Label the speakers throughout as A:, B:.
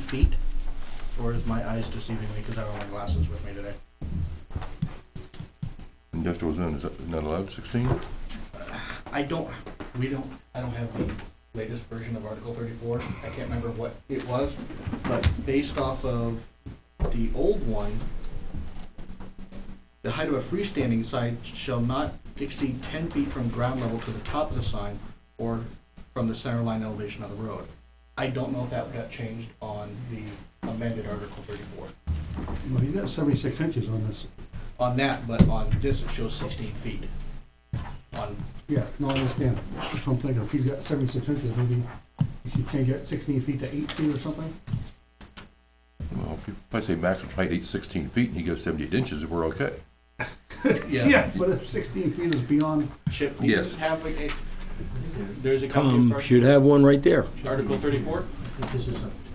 A: feet? Or is my eyes deceiving me because I don't have my glasses with me today?
B: Industrial zone, is that not allowed, sixteen?
A: I don't, we don't, I don't have the latest version of Article thirty-four. I can't remember what it was, but based off of the old one, the height of a freestanding sign shall not exceed ten feet from ground level to the top of the sign or from the center line elevation of the road. I don't know if that got changed on the amended Article thirty-four.
C: Well, you got seventy-six inches on this.
A: On that, but on this, it shows sixteen feet. On,
C: Yeah, no, I understand. That's what I'm thinking. If he's got seventy-six inches, maybe you can get sixteen feet to eight feet or something?
B: Well, if you- if I say maximum height eight sixteen feet and he goes seventy-eight inches, we're okay.
A: yeah,
C: But if sixteen feet is beyond,
A: Chip, do you
B: Yes.
A: have a, a- there's a copy of
D: Tom
A: Ar-
D: Um, should have one right there.
A: Article thirty-four?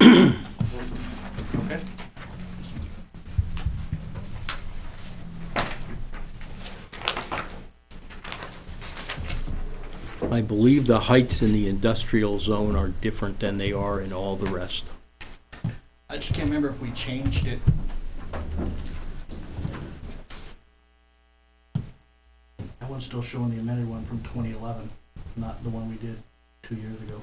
A: Okay.
D: I believe the heights in the industrial zone are different than they are in all the rest.
A: I just can't remember if we changed it. That one's still showing the amended one from twenty eleven, not the one we did two years ago.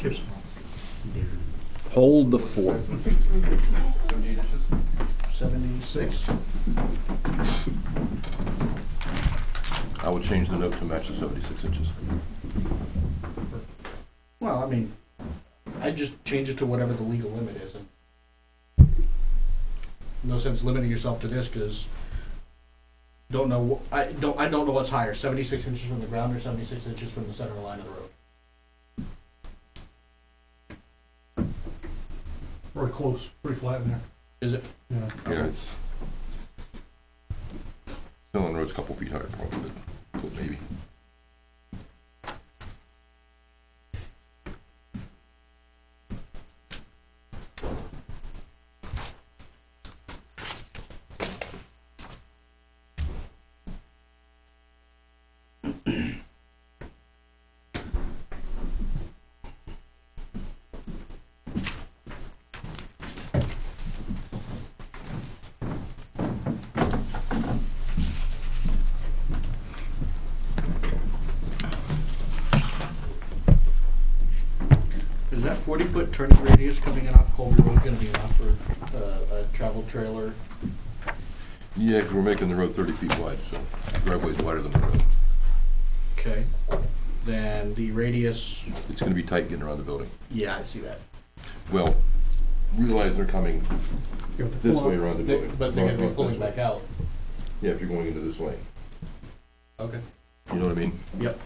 A: Chip's
D: Hold the fort.
B: Seventy-eight inches?
A: Seventy-six.
B: I would change the note to match the seventy-six inches.
A: Well, I mean, I just change it to whatever the legal limit is. and No sense limiting yourself to this, because don't know, wh- I don't, I don't know what's higher, seventy-six inches from the ground or seventy-six inches from the center line of the road.
C: or close, pretty flat in there.
A: Is it?
C: Yeah.
B: Yeah, it's. Still on the road's a couple feet higher, probably, but foot maybe.
A: Is that forty-foot turning radius coming in off Colby Road gonna be enough for, uh, a travel trailer?
B: Yeah, 'cause we're making the road thirty feet wide, so driveway's wider than the road.
A: Okay, then the radius,
B: It's gonna be tight getting around the building.
A: yeah, I see that.
B: Well, realize they're coming
C: You have to
B: this
C: pull out.
B: way around the building.
A: But they're
B: not-
A: gonna be
B: not
A: pulling
B: this way.
A: back out.
B: Yeah, if you're going into this lane,
A: Okay.
B: you know what I mean?
A: Yep,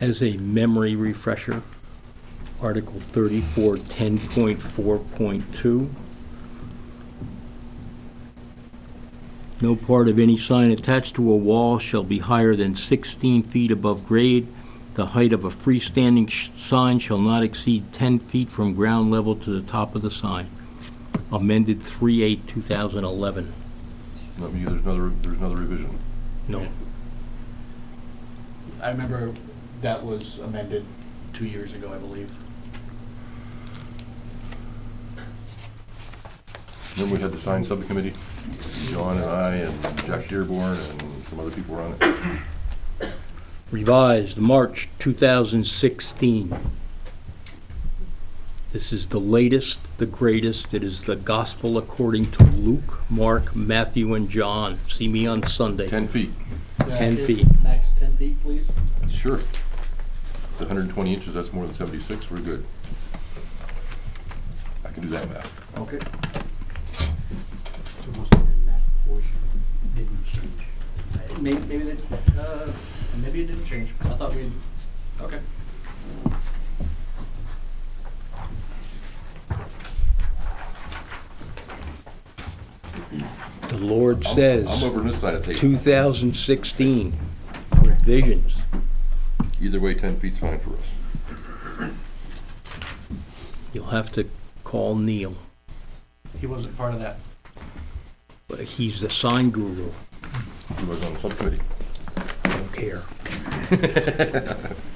D: As a memory refresher, Article 34, 10.4.2. No part of any sign attached to a wall shall be higher than 16 feet above grade. The height of a freestanding sh- sign shall not exceed 10 feet from ground level to the top of the sign. Amended 3/8/2011.
B: Let me, there's another, there's another revision.
D: No,
A: I remember that was amended two years ago, I believe.
B: Remember we had the sign subcommittee? John and I and Jack Dearborn and some other people were on it.
D: revised March 2016. This is the latest, the greatest. It is the gospel according to Luke, Mark, Matthew, and John. See me on Sunday.
B: Ten feet,
D: Ten feet.
A: Max ten feet, please.
B: sure. It's hundred and twenty inches, that's more than seventy-six, we're good. I can do that math.
A: Okay.
E: So must have been that portion didn't change.
A: Maybe, maybe that, uh, maybe it didn't change. I thought we, okay.
D: The Lord
B: I'm- I'm
D: says,
B: over on this side of the table.
D: 2016 revisions.
B: Either way, ten feet's fine for us.
D: You'll have to call Neil.
A: He wasn't part of that.
D: He's the sign guru.
B: He was on the subcommittee.
D: I don't care.